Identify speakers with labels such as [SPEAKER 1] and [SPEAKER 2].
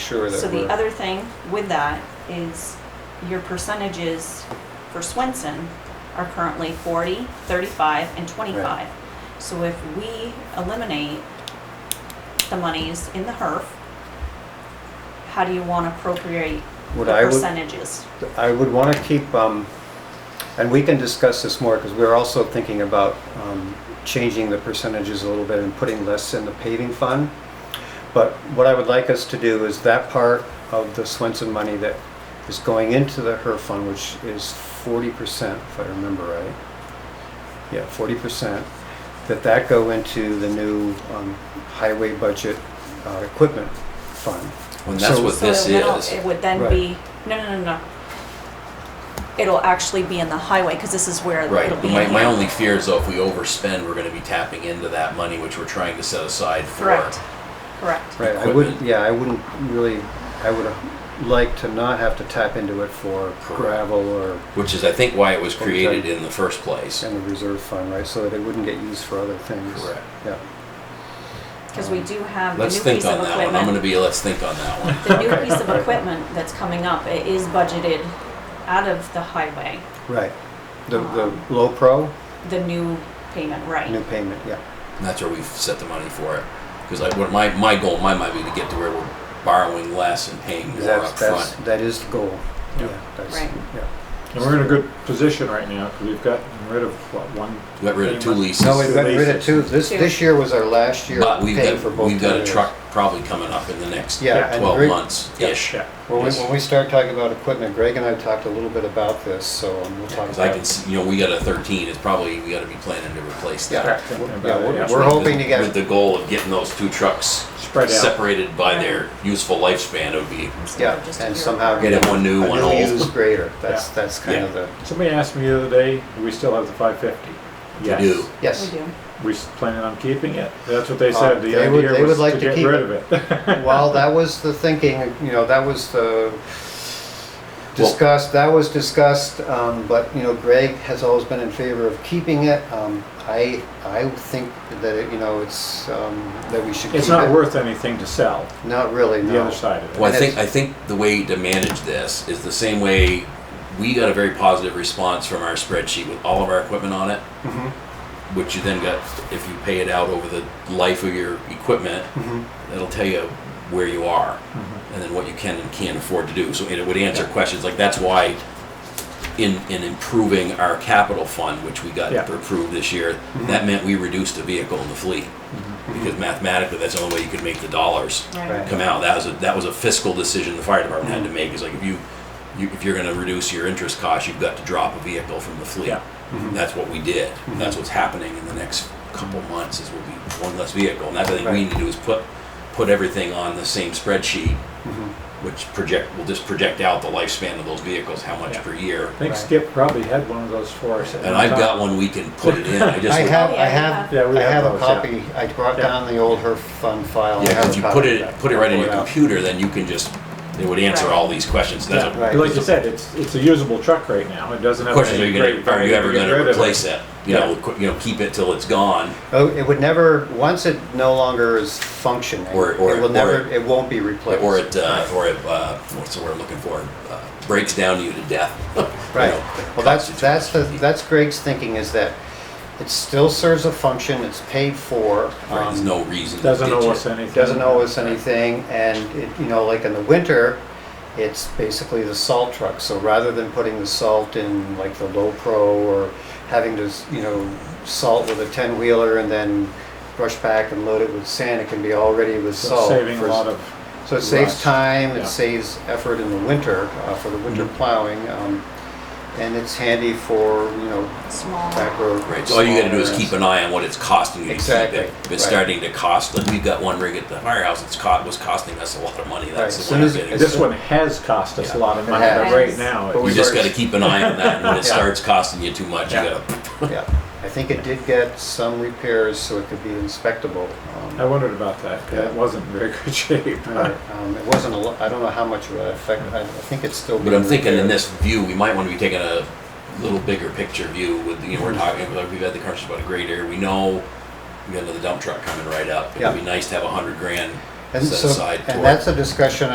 [SPEAKER 1] sure
[SPEAKER 2] So
[SPEAKER 1] that
[SPEAKER 2] the
[SPEAKER 1] we're,
[SPEAKER 2] other thing with that is your percentages for Swenson are currently 40, 35, and 25.
[SPEAKER 1] Right.
[SPEAKER 2] So if we eliminate the monies in the HERF, how do you want to appropriate the
[SPEAKER 1] What I would-
[SPEAKER 2] percentages?
[SPEAKER 1] I would want to keep, um, and we can discuss this more because we're also thinking about um, changing the percentages a little bit and putting less in the paving fund. But what I would like us to do is that part of the Swenson money that is going into the HER fund, which is forty percent, if I remember right. Yeah, forty percent, that that go into the new um, highway budget uh, equipment fund.
[SPEAKER 3] Well, that's
[SPEAKER 1] So-
[SPEAKER 3] what
[SPEAKER 2] So
[SPEAKER 3] this
[SPEAKER 2] it'll-
[SPEAKER 3] is.
[SPEAKER 2] It would then
[SPEAKER 1] Right.
[SPEAKER 2] be, no, no, no, no. It'll actually be in the highway because this is where
[SPEAKER 3] Right.
[SPEAKER 2] it'll be in
[SPEAKER 3] My, my
[SPEAKER 2] here.
[SPEAKER 3] only fear is though, if we overspend, we're going to be tapping into that money which we're trying to set aside for.
[SPEAKER 2] Correct, correct.
[SPEAKER 1] Right, I would,
[SPEAKER 3] equipment.
[SPEAKER 1] yeah, I wouldn't really, I would like to not have to tap into it for gravel or
[SPEAKER 3] Which is, I think, why it was
[SPEAKER 1] Okay.
[SPEAKER 3] created in the first place.
[SPEAKER 1] in the reserve fund, right, so that it wouldn't get used for other things.
[SPEAKER 3] Correct.
[SPEAKER 1] Yeah,
[SPEAKER 2] Because we do have the new
[SPEAKER 3] Let's
[SPEAKER 2] piece of
[SPEAKER 3] think
[SPEAKER 2] equipment.
[SPEAKER 3] on that one. I'm going to be. Let's think on that one.
[SPEAKER 2] The new piece of equipment that's coming up, it is budgeted out of the highway,
[SPEAKER 1] right. The, the low pro,
[SPEAKER 2] the new payment,
[SPEAKER 1] new
[SPEAKER 2] right?
[SPEAKER 1] payment, yeah.
[SPEAKER 3] And that's where we've set the money for it. Because like, what my my goal, my might be to get to where we're borrowing less and paying more
[SPEAKER 1] That's,
[SPEAKER 3] up
[SPEAKER 1] that's,
[SPEAKER 3] front.
[SPEAKER 1] that is the goal.
[SPEAKER 4] Yeah.
[SPEAKER 1] that's-
[SPEAKER 2] Right.
[SPEAKER 1] Yeah.
[SPEAKER 4] And we're in a good position right now, because we've gotten rid of, what, one?
[SPEAKER 3] We got rid of two leases.
[SPEAKER 1] No, we've got rid of two, this,
[SPEAKER 2] Two.
[SPEAKER 1] this year was our last year
[SPEAKER 3] But we've
[SPEAKER 1] paying for
[SPEAKER 3] got,
[SPEAKER 1] both.
[SPEAKER 3] we've got a
[SPEAKER 1] areas.
[SPEAKER 3] truck probably coming up in the next
[SPEAKER 1] Yeah,
[SPEAKER 4] Yeah.
[SPEAKER 1] and
[SPEAKER 3] twelve
[SPEAKER 1] Greg-
[SPEAKER 3] months-ish.
[SPEAKER 4] Yeah.
[SPEAKER 1] When we, when we start talking about equipment, Greg and I talked a little bit about this, so um, we'll talk
[SPEAKER 3] Because I
[SPEAKER 1] about
[SPEAKER 3] can
[SPEAKER 1] it.
[SPEAKER 3] see, you know, we got a thirteen, it's probably, we gotta be planning to replace
[SPEAKER 1] Yeah,
[SPEAKER 3] that.
[SPEAKER 1] we're-
[SPEAKER 4] About
[SPEAKER 1] yeah,
[SPEAKER 4] it,
[SPEAKER 1] we're-
[SPEAKER 4] yeah.
[SPEAKER 1] we're hoping to get,
[SPEAKER 3] With the goal of getting those two trucks
[SPEAKER 4] Spread out.
[SPEAKER 3] separated by their useful lifespan, it would be,
[SPEAKER 1] yeah,
[SPEAKER 2] Just a
[SPEAKER 1] and
[SPEAKER 2] year
[SPEAKER 1] somehow
[SPEAKER 2] apart.
[SPEAKER 3] get it one new,
[SPEAKER 1] A
[SPEAKER 3] one
[SPEAKER 1] new used
[SPEAKER 3] old.
[SPEAKER 1] grader, that's,
[SPEAKER 4] Yeah.
[SPEAKER 1] that's kind of the,
[SPEAKER 4] Somebody asked me the other day, do we still have the five fifty?
[SPEAKER 3] We do.
[SPEAKER 2] We
[SPEAKER 1] yes.
[SPEAKER 2] do.
[SPEAKER 4] We s- planning on keeping it? That's what they
[SPEAKER 1] Uh,
[SPEAKER 4] said, the
[SPEAKER 1] they would- they
[SPEAKER 4] idea
[SPEAKER 1] would
[SPEAKER 4] was
[SPEAKER 1] like
[SPEAKER 4] to
[SPEAKER 1] to
[SPEAKER 4] get
[SPEAKER 1] keep
[SPEAKER 4] rid
[SPEAKER 1] it.
[SPEAKER 4] of it.
[SPEAKER 1] Well, that was the thinking, you know, that was the discussed, that was discussed, um, but, you know, Greg has always been in favor of keeping it. Um, I, I think that, it- you know, it's, um, that we should keep it.
[SPEAKER 4] It's not worth anything to sell,
[SPEAKER 1] Not really, no.
[SPEAKER 4] the other side of it.
[SPEAKER 3] Well, I
[SPEAKER 1] And
[SPEAKER 3] think, I
[SPEAKER 1] it's-
[SPEAKER 3] think the way to manage this is the same way, we got a very positive response from our spreadsheet with all of our equipment on it.
[SPEAKER 1] Mm-hmm.
[SPEAKER 3] Which you then got, if you pay it out over the life of your equipment,
[SPEAKER 1] Mm-hmm.
[SPEAKER 3] it'll tell you where you are and then what you can and can't afford to do. So it would answer questions like that's why in in improving our capital fund, which we got
[SPEAKER 4] Yeah.
[SPEAKER 3] approved this year,
[SPEAKER 1] Mm-hmm.
[SPEAKER 3] that meant we reduced a vehicle in the fleet because mathematically that's the only way you could make the dollars
[SPEAKER 2] Right.
[SPEAKER 3] come out. That was a that was a fiscal decision the fire department had to make. Is like if you, you if you're going to reduce your interest cost, you've got to drop a vehicle from the fleet.
[SPEAKER 4] Yeah.
[SPEAKER 3] That's what we did. That's what's happening in the next couple months. Is we'll be one less vehicle, and that's what I think we
[SPEAKER 1] Right.
[SPEAKER 3] need to do is put put everything on the same spreadsheet, which project will just project out the lifespan of those vehicles, how much
[SPEAKER 4] Yeah.
[SPEAKER 3] per year.
[SPEAKER 4] I think Skip probably had one of those for us. at
[SPEAKER 3] And
[SPEAKER 4] one
[SPEAKER 3] I've got
[SPEAKER 4] time.
[SPEAKER 3] one we can put it in. I just
[SPEAKER 1] I
[SPEAKER 3] would-
[SPEAKER 1] have,
[SPEAKER 2] Oh, yeah,
[SPEAKER 1] I
[SPEAKER 2] you
[SPEAKER 1] have,
[SPEAKER 4] have. Yeah, we
[SPEAKER 1] I
[SPEAKER 4] have
[SPEAKER 1] have a
[SPEAKER 4] those, yeah.
[SPEAKER 1] copy, I brought
[SPEAKER 4] Yeah.
[SPEAKER 1] down the old HERF fund file. I
[SPEAKER 3] yeah,
[SPEAKER 1] have
[SPEAKER 3] if
[SPEAKER 1] a
[SPEAKER 3] you
[SPEAKER 1] copy
[SPEAKER 3] put
[SPEAKER 1] of
[SPEAKER 3] it
[SPEAKER 1] that.
[SPEAKER 3] put it right in your
[SPEAKER 1] Yeah.
[SPEAKER 3] computer, then you can just it would answer
[SPEAKER 2] Right.
[SPEAKER 3] all these questions. That's
[SPEAKER 4] Yeah,
[SPEAKER 3] a,
[SPEAKER 1] Right.
[SPEAKER 4] like you said, it's, it's a usable truck right now, it doesn't
[SPEAKER 3] The
[SPEAKER 4] have.
[SPEAKER 3] question is, are
[SPEAKER 4] any
[SPEAKER 3] you gonna,
[SPEAKER 4] great
[SPEAKER 3] are
[SPEAKER 4] value
[SPEAKER 3] you ever
[SPEAKER 4] to get
[SPEAKER 3] gonna
[SPEAKER 4] rid of
[SPEAKER 3] replace it? You
[SPEAKER 4] Yeah.
[SPEAKER 3] know, qu- you know, keep it till it's gone,
[SPEAKER 1] Oh, it would never, once it no longer is functioning, it
[SPEAKER 3] Or- or-
[SPEAKER 1] will
[SPEAKER 3] or-
[SPEAKER 1] never, it won't be replaced.
[SPEAKER 3] or it, uh, or it, uh, what's the word I'm looking for? Uh, Breaks down to you to death. You
[SPEAKER 1] Right,
[SPEAKER 3] know,
[SPEAKER 1] well, that's,
[SPEAKER 3] constitutes-
[SPEAKER 1] that's the, that's Greg's thinking is that it still serves a function, it's paid for.
[SPEAKER 3] Right, There's
[SPEAKER 1] um,
[SPEAKER 3] no reason to
[SPEAKER 4] Doesn't
[SPEAKER 3] ditch
[SPEAKER 4] owe
[SPEAKER 3] it.
[SPEAKER 4] us anything.
[SPEAKER 1] Doesn't owe us anything, and it, you know, like in the winter, it's basically the salt truck, so rather than putting the salt in like the low pro or having to, you know, salt with a ten wheeler and then brush back and load it with sand, it can be all ready with
[SPEAKER 4] So
[SPEAKER 1] salt.
[SPEAKER 4] Saving a
[SPEAKER 1] for-
[SPEAKER 4] lot of,
[SPEAKER 1] so it saves
[SPEAKER 4] Rust.
[SPEAKER 1] time,
[SPEAKER 4] Yeah.
[SPEAKER 1] it saves effort in the winter, uh, for the winter
[SPEAKER 3] Mm-hmm.
[SPEAKER 1] plowing, um, and it's handy for, you know,
[SPEAKER 2] Small.
[SPEAKER 1] back road.
[SPEAKER 3] Right, so all you gotta do is
[SPEAKER 1] smaller
[SPEAKER 3] keep an eye on what it's costing you to keep
[SPEAKER 1] Exactly,
[SPEAKER 3] it. If it's
[SPEAKER 1] right.
[SPEAKER 3] starting to cost, like, we've got one rig at the firehouse, it's caught, was costing us a lot of money,
[SPEAKER 1] Right,
[SPEAKER 3] that's
[SPEAKER 1] as
[SPEAKER 3] the
[SPEAKER 1] soon
[SPEAKER 3] one
[SPEAKER 1] as-
[SPEAKER 3] bit.
[SPEAKER 1] as-
[SPEAKER 4] this one has cost us a lot of money,
[SPEAKER 1] It has.
[SPEAKER 4] but right now.
[SPEAKER 1] But
[SPEAKER 4] it's-
[SPEAKER 3] You
[SPEAKER 1] we've
[SPEAKER 3] just
[SPEAKER 1] already-
[SPEAKER 3] gotta keep an eye on that, and when it
[SPEAKER 1] Yeah.
[SPEAKER 3] starts costing you too much, you
[SPEAKER 1] Yeah.
[SPEAKER 3] gotta
[SPEAKER 1] Yeah, I think it did get some repairs so it could be inspectable. um,
[SPEAKER 4] I wondered about that. 'cause It
[SPEAKER 1] Yeah.
[SPEAKER 4] wasn't in very good shape.
[SPEAKER 1] but, um, It wasn't a lot, I don't know how much of an effect, I I think it's still.
[SPEAKER 3] But I'm
[SPEAKER 1] being
[SPEAKER 3] thinking in
[SPEAKER 1] repaired.
[SPEAKER 3] this view, we might want to be taking a little bigger picture view with, you know,
[SPEAKER 1] Mhm.
[SPEAKER 3] we're talking, like, we've had the conversation about a great area, we know we got another dump truck coming right up. It'd be
[SPEAKER 1] Yeah.
[SPEAKER 3] nice to have a hundred grand
[SPEAKER 1] And
[SPEAKER 3] set
[SPEAKER 1] so-
[SPEAKER 3] aside.
[SPEAKER 1] And
[SPEAKER 3] toward-
[SPEAKER 1] that's a discussion